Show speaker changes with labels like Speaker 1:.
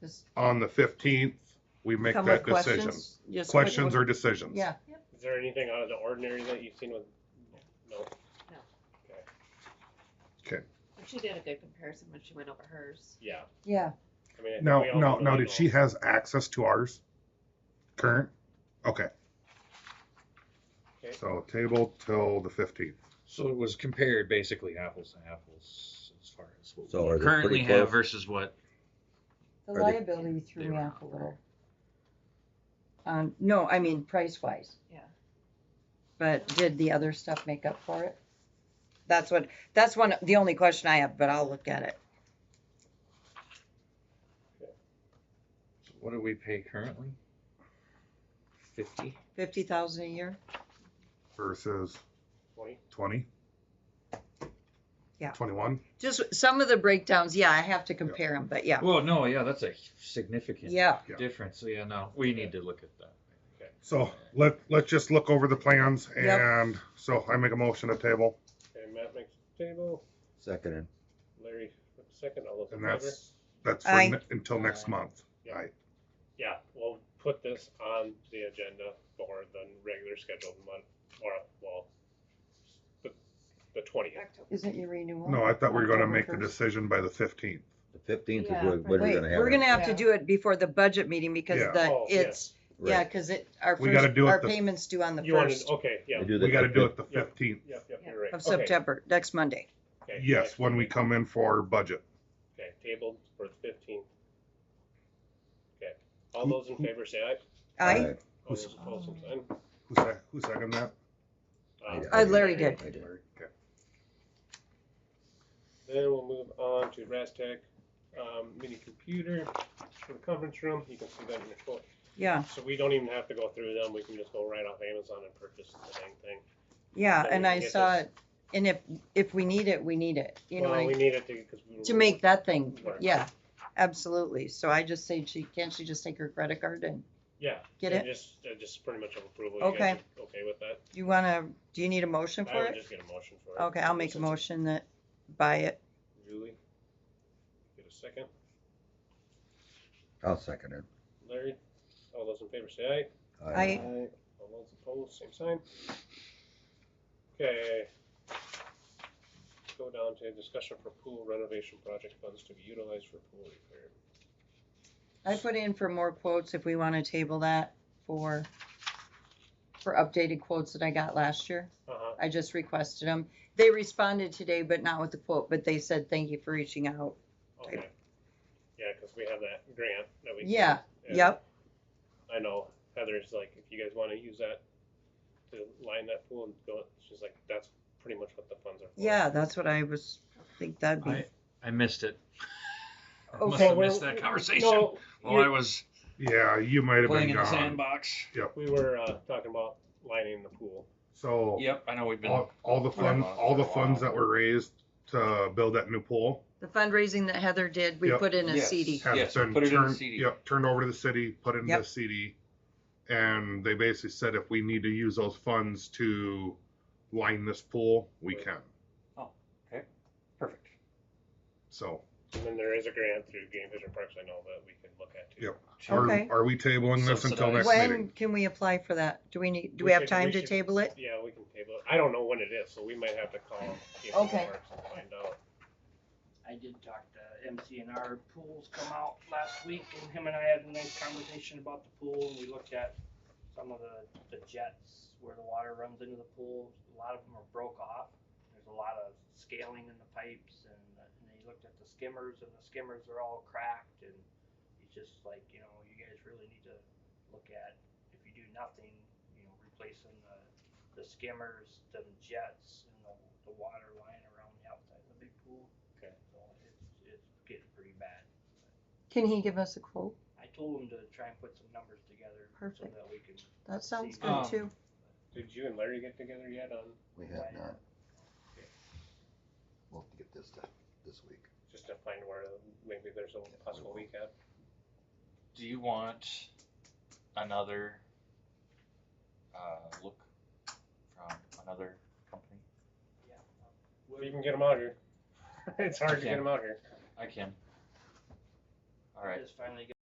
Speaker 1: Just
Speaker 2: on the fifteenth, we make
Speaker 1: come
Speaker 2: that
Speaker 1: with
Speaker 2: decision.
Speaker 1: questions. Just quick
Speaker 2: Questions
Speaker 1: one.
Speaker 2: or decisions?
Speaker 1: Yeah,
Speaker 3: Is there anything out of the ordinary that you've seen with, no?
Speaker 4: She did a good comparison when she went over hers.
Speaker 3: Yeah.
Speaker 1: yeah.
Speaker 3: I mean, I think
Speaker 2: Now,
Speaker 3: we all
Speaker 2: now,
Speaker 3: really
Speaker 2: now, did
Speaker 3: know.
Speaker 2: she has access to ours? Current? Okay.
Speaker 3: Okay.
Speaker 2: So table till the fifteenth.
Speaker 5: So it was compared basically apples to apples as far as what
Speaker 6: So
Speaker 5: we
Speaker 6: are they
Speaker 5: currently
Speaker 6: pretty
Speaker 5: have
Speaker 6: close?
Speaker 5: versus what.
Speaker 1: The
Speaker 6: Are they-
Speaker 1: liability threw
Speaker 5: they
Speaker 1: me
Speaker 5: were
Speaker 1: off a little. Um, no, I mean price wise.
Speaker 4: Yeah.
Speaker 1: But did the other stuff make up for it? That's what, that's one, the only question I have, but I'll look at it.
Speaker 5: What do we pay currently? Fifty.
Speaker 1: Fifty thousand a year?
Speaker 2: versus
Speaker 3: Twenty?
Speaker 2: twenty?
Speaker 1: Yeah.
Speaker 2: Twenty-one?
Speaker 1: Just some of the breakdowns, yeah, I have to compare them, but yeah,
Speaker 5: Well, no, yeah, that's a significant
Speaker 1: yeah.
Speaker 2: Yeah.
Speaker 5: difference. So yeah, no, we need to look at that.
Speaker 2: So let, let's just look over the plans
Speaker 1: Yep.
Speaker 2: and so I make a motion to table
Speaker 3: Okay, Matt makes the table,
Speaker 6: Seconded.
Speaker 3: Larry with the second, all those in
Speaker 2: and
Speaker 3: favor?
Speaker 2: that's, that's for
Speaker 1: Aye.
Speaker 2: ne- until next month.
Speaker 3: Yeah, we'll put this on the agenda for the regular scheduled month, or, well, the, the twentieth.
Speaker 1: Isn't your renewal?
Speaker 2: No, I thought we were gonna
Speaker 1: October
Speaker 2: make the
Speaker 1: 1st?
Speaker 2: decision by the fifteenth.
Speaker 6: The fifteenth is
Speaker 4: Yeah,
Speaker 6: what, what
Speaker 1: Wait,
Speaker 6: we're gonna have.
Speaker 1: we're gonna have to
Speaker 4: Yeah.
Speaker 1: do it before the budget meeting because
Speaker 2: Yeah.
Speaker 1: the,
Speaker 3: Oh, yes.
Speaker 1: it's, yeah, cause it, our
Speaker 2: We gotta
Speaker 1: first,
Speaker 2: do it
Speaker 1: our
Speaker 2: the-
Speaker 1: payments due on the
Speaker 3: You wanted,
Speaker 1: first
Speaker 3: okay, yeah,
Speaker 6: We
Speaker 3: yep,
Speaker 6: do
Speaker 2: We
Speaker 6: that
Speaker 2: gotta
Speaker 6: the
Speaker 2: do it the
Speaker 3: Yeah.
Speaker 2: fifteenth.
Speaker 3: yep, you're right.
Speaker 1: of
Speaker 3: Okay,
Speaker 1: September, next Monday.
Speaker 3: okay,
Speaker 2: Yes,
Speaker 3: next
Speaker 2: when we
Speaker 3: meeting.
Speaker 2: come in for budget.
Speaker 3: Okay, tabled for the fifteenth. Okay, all those in favor say aye.
Speaker 1: I,
Speaker 6: 15th.
Speaker 3: All those opposed, same sign. Um,
Speaker 2: Who's that, who's second that?
Speaker 3: Aye.
Speaker 1: I, Larry did.
Speaker 6: I did.
Speaker 3: Then we'll move on to Rastec, um, mini computer for the conference room, you can see that in your quote.
Speaker 1: Yeah,
Speaker 3: So we don't even have to go through them, we can just go right off Amazon and purchase the dang thing.
Speaker 1: yeah,
Speaker 3: Then
Speaker 1: and
Speaker 3: we
Speaker 1: I
Speaker 3: can get
Speaker 1: saw
Speaker 3: this.
Speaker 1: it, and if, if we need it, we need it, you know,
Speaker 3: Well, we
Speaker 1: what I-
Speaker 3: need it to, cause. we-
Speaker 1: to make that thing,
Speaker 3: Right.
Speaker 1: yeah, absolutely. So I just say she, can't she just take her credit card and,
Speaker 3: Yeah.
Speaker 1: Get
Speaker 3: and Just, uh, just pretty much of approval. You
Speaker 1: Okay.
Speaker 3: guys are Okay with that?
Speaker 1: do you wanna, do you need a motion
Speaker 3: I
Speaker 1: for
Speaker 3: would
Speaker 1: it?
Speaker 3: just get a motion for it.
Speaker 1: Okay, I'll make a
Speaker 3: Since-
Speaker 1: motion that, buy it.
Speaker 3: Julie? Get a second,
Speaker 6: I'll second it. Uh,
Speaker 3: Larry, all those in favor say aye.
Speaker 1: I-
Speaker 3: All those opposed, same sign. Okay. Go down to discussion for pool renovation project funds to be utilized for pool repair.
Speaker 1: I put in for more quotes if we wanna table that for, for updated quotes that I got last year.
Speaker 3: Uh-huh,
Speaker 1: I just requested them. They responded today, but not with the quote, but they said, thank you for reaching out.
Speaker 3: okay. Yeah, cause we have that grant that we.
Speaker 1: Yeah,
Speaker 3: and
Speaker 1: yep.
Speaker 3: I know Heather's like, if you guys wanna use that to line that pool and go, she's like, that's pretty much what the funds are for.
Speaker 1: Yeah, that's what I was, think that'd be,
Speaker 5: I I missed it. I
Speaker 1: Okay,
Speaker 5: must have
Speaker 3: we're-
Speaker 5: missed that conversation
Speaker 3: No,
Speaker 5: while I was
Speaker 2: Yeah, you might have
Speaker 5: playing
Speaker 2: been
Speaker 5: in the
Speaker 2: gone.
Speaker 5: sandbox.
Speaker 3: we were, uh, talking about lining the pool.
Speaker 2: So
Speaker 5: Yep, I know we've been.
Speaker 2: all, all the funds, all the funds that were raised to build that new pool
Speaker 1: the fundraising that Heather did, we
Speaker 2: Yep.
Speaker 1: put in a
Speaker 5: Yes.
Speaker 1: CD.
Speaker 2: has
Speaker 5: Yes,
Speaker 2: been
Speaker 5: put it in the
Speaker 2: turned,
Speaker 5: CD.
Speaker 2: yep, turned over to the city, put in the
Speaker 1: Yep.
Speaker 2: CD. And they basically said if we need to use those funds to line this pool, we
Speaker 3: Right.
Speaker 2: can.
Speaker 5: Perfect.
Speaker 2: So
Speaker 3: And then there is a grant through Game Fish and Parks, I know, that we can look at too.
Speaker 2: Yep. are,
Speaker 1: Okay.
Speaker 2: are we tabling this until next
Speaker 5: Subsidized.
Speaker 2: meeting?
Speaker 1: When can we apply for that? Do we need, do
Speaker 3: We
Speaker 1: we have
Speaker 3: should-
Speaker 1: time
Speaker 3: we
Speaker 1: to
Speaker 3: should-
Speaker 1: table it?
Speaker 3: Yeah, we can table it. I don't know when it is, so we might have to call Game Fish
Speaker 1: Okay.
Speaker 3: and Parks and find out.
Speaker 7: I did talk to MCNR Pools come out last week, and him and I had a nice conversation about the pool, and we looked at some of the, the jets where the water runs into the pool. A lot of them are broke off. There's a lot of scaling in the pipes, and, and they looked at the skimmers, and the skimmers are all cracked, and it's just like, you know, you guys really need to look at, if you do nothing, you know, replacing the, the skimmers, the jets, and the, the water line around the outside of the big pool.
Speaker 3: Okay.
Speaker 7: So it's, it's getting pretty bad.
Speaker 1: Can he give us a quote?
Speaker 7: I told him to try and put some numbers together so
Speaker 1: Perfect.
Speaker 7: that we can.
Speaker 1: That sounds good
Speaker 5: Um,
Speaker 1: too.
Speaker 3: Did you and Larry get together yet on
Speaker 6: We have not. We'll have to get this done this week.
Speaker 3: just to find where maybe there's a possible weekend?
Speaker 5: Do you want another uh, look from another company?
Speaker 7: Yeah.
Speaker 3: Well, you can get them out here. It's hard to get
Speaker 5: Yeah.
Speaker 3: them out here.
Speaker 5: I can. Uh,
Speaker 8: All right.
Speaker 7: Just finally